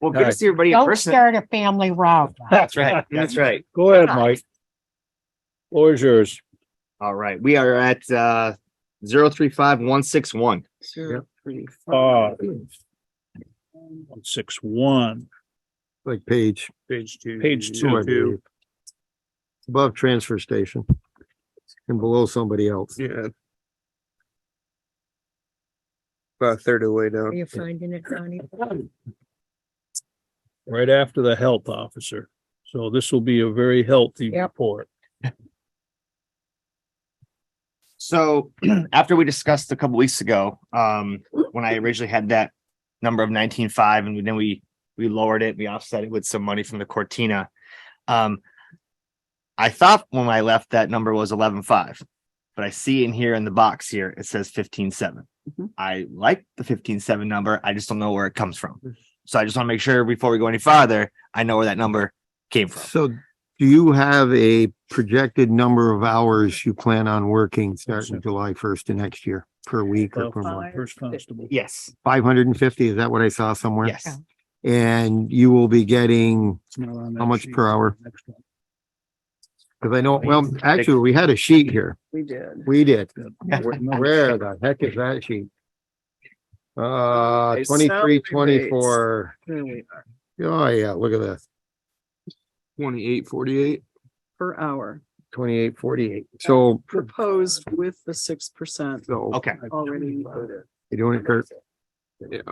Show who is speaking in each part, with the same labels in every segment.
Speaker 1: Well, good to
Speaker 2: Alright.
Speaker 1: see everybody in
Speaker 3: Don't
Speaker 1: person.
Speaker 3: start a family row.
Speaker 1: That's right. That's right.
Speaker 2: Go ahead, Mike. Floor is yours.
Speaker 1: All right. We are at uh zero three five one six one.
Speaker 2: Uh, One six one,
Speaker 4: like page
Speaker 5: Page two.
Speaker 2: page
Speaker 4: two, I
Speaker 2: two,
Speaker 4: believe.
Speaker 2: two.
Speaker 4: above transfer station and below somebody else.
Speaker 5: Yeah. About a third of the way down.
Speaker 6: You're finding it, Donnie?
Speaker 2: right after the health officer. So this will be a very healthy
Speaker 6: Yep.
Speaker 2: report.
Speaker 1: So after we discussed a couple weeks ago, um, when I originally had that number of nineteen five and then we, we lowered it, we offset it with some money from the Cortina. Um, I thought when I left that number was eleven five, but I see in here in the box here, it says fifteen seven.
Speaker 7: Mhm.
Speaker 1: I like the fifteen seven number. I just don't know where it comes from. So I just want to make sure before we go any farther, I know where that number came from.
Speaker 4: So do you have a projected number of hours you plan on working starting July first of next year per week or
Speaker 2: Uh,
Speaker 4: per month?
Speaker 2: First constable.
Speaker 1: Yes,
Speaker 4: Five hundred and fifty, is that what I saw somewhere?
Speaker 1: yes.
Speaker 4: And you will be getting,
Speaker 2: It's not on
Speaker 4: How
Speaker 2: that
Speaker 4: much
Speaker 2: sheet.
Speaker 4: per hour?
Speaker 2: Next one.
Speaker 4: because I know, well, actually, we had a sheet here.
Speaker 7: We did.
Speaker 4: We did.
Speaker 1: Yeah.
Speaker 4: Where the heck is that sheet? Uh,
Speaker 7: Okay, salary
Speaker 4: twenty-three,
Speaker 7: rates.
Speaker 4: twenty-four.
Speaker 7: There we are.
Speaker 4: Oh, yeah, look at this.
Speaker 5: Twenty-eight, forty-eight.
Speaker 7: Per hour,
Speaker 4: Twenty-eight, forty-eight. So,
Speaker 7: proposed with the six percent
Speaker 4: so
Speaker 1: Okay.
Speaker 7: already included.
Speaker 4: you doing it, Kurt?
Speaker 5: Yeah.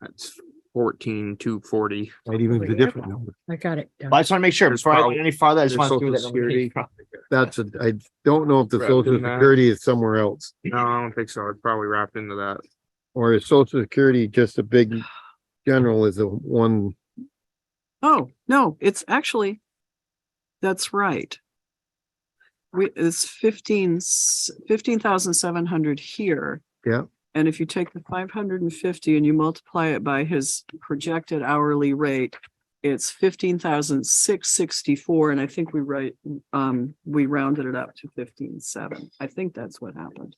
Speaker 5: That's fourteen, two forty.
Speaker 4: Might even be a different number.
Speaker 6: I got it. Donnie.
Speaker 1: But I just want to make sure before I go any farther, I just want
Speaker 5: There's
Speaker 1: to see where that
Speaker 5: Social
Speaker 1: number came
Speaker 5: Security.
Speaker 1: from.
Speaker 4: That's a, I don't know if the
Speaker 5: Right,
Speaker 4: social
Speaker 5: isn't that-
Speaker 4: security is somewhere else,
Speaker 5: No, I don't think so. It's probably wrapped into that.
Speaker 4: or is social security just a big general is the one,
Speaker 7: Oh, no, it's actually, that's right. We, it's fifteen, fifteen thousand seven hundred here.
Speaker 4: Yeah.
Speaker 7: And if you take the five hundred and fifty and you multiply it by his projected hourly rate, it's fifteen thousand six sixty-four, and I think we write, um, we rounded it up to fifteen seven. I think that's what happened.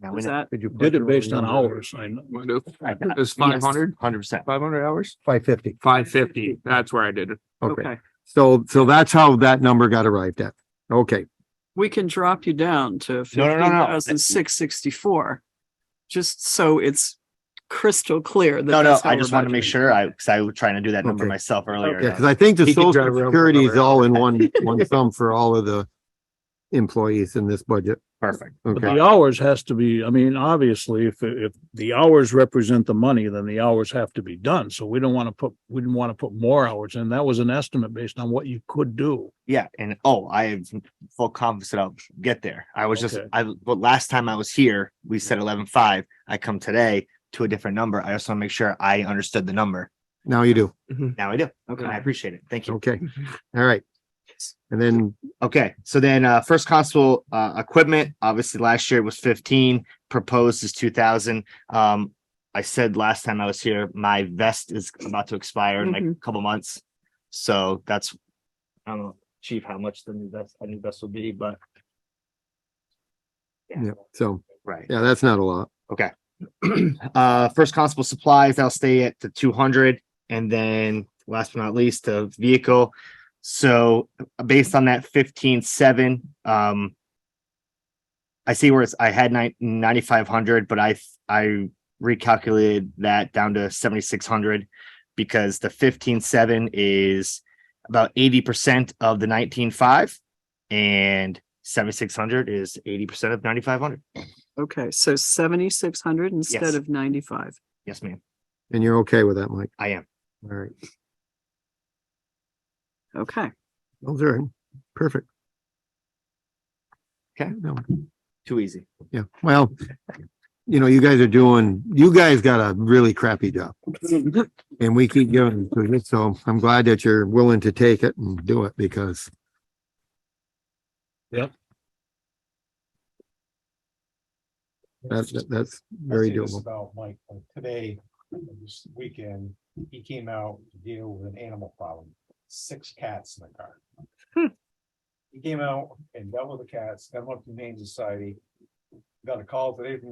Speaker 1: Now we
Speaker 7: Was
Speaker 1: know.
Speaker 7: that?
Speaker 4: did you?
Speaker 2: Did it based on hours, I know.
Speaker 5: It's five hundred,
Speaker 1: Hundred percent.
Speaker 5: five hundred hours?
Speaker 4: Five fifty.
Speaker 5: Five fifty. That's where I did it.
Speaker 4: Okay, so, so that's how that number got arrived at. Okay,
Speaker 7: We can drop you down to
Speaker 1: No, no, no,
Speaker 7: fifteen
Speaker 1: no.
Speaker 7: thousand six sixty-four. Just so it's crystal clear. that
Speaker 1: No, no,
Speaker 7: that's how
Speaker 1: I
Speaker 7: we're
Speaker 1: just want to make
Speaker 7: budgeting.
Speaker 1: sure I, because I was trying to do that number
Speaker 4: Okay.
Speaker 1: myself earlier.
Speaker 4: yeah, because I think the
Speaker 5: He could
Speaker 4: social
Speaker 5: drive around for
Speaker 4: security is
Speaker 5: another
Speaker 4: all in one, one sum for all of the employees in this budget.
Speaker 1: Perfect.
Speaker 2: But
Speaker 4: Okay,
Speaker 2: the hours has to be, I mean, obviously, if, if the hours represent the money, then the hours have to be done. So we don't want to put, we didn't want to put more hours in. That was an estimate based on what you could do.
Speaker 1: Yeah, and oh, I have full confidence that I'll get there. I was just,
Speaker 2: Okay.
Speaker 1: I, but last time I was here, we said eleven five. I come today to a different number. I just want to make sure I understood the number.
Speaker 4: now you do.
Speaker 1: Now I do. Okay. I appreciate it. Thank you.
Speaker 4: Okay, all right. And then
Speaker 1: Okay, so then uh first constable uh equipment, obviously last year it was fifteen, proposed is two thousand. Um I said last time I was here, my vest is about to expire in like a couple months. So that's I don't know, chief, how much the new vest, a new vest will be, but
Speaker 4: Yeah, so,
Speaker 1: right.
Speaker 4: yeah, that's not a lot.
Speaker 1: uh first constable supplies that'll stay at the 200 and then last but not least the vehicle so based on that 15 7 um i see where it's i had nine- 9500 but i i recalculated that down to 7600 because the 15 7 is about 80% of the 195 and 7600 is 80% of 9500
Speaker 7: Okay, so seventy-six hundred
Speaker 1: Yes.
Speaker 7: instead of ninety-five.
Speaker 1: yes ma'am
Speaker 4: And you're okay with that, Mike?
Speaker 1: i am
Speaker 4: All right,
Speaker 7: Okay,
Speaker 4: those are perfect.
Speaker 1: Okay.
Speaker 4: No,
Speaker 1: too easy
Speaker 4: Yeah, well, you know, you guys are doing, you guys got a really crappy job. And we keep giving it to you, so I'm glad that you're willing to take it and do it because.
Speaker 2: Yep.
Speaker 4: That's, that's very
Speaker 8: I'd say this
Speaker 4: doable.
Speaker 8: About Mike, like today, this weekend, he came out to deal with an animal problem, six cats in the car. He came out and dealt with the cats, got them up to the Humane Society. Got a call today from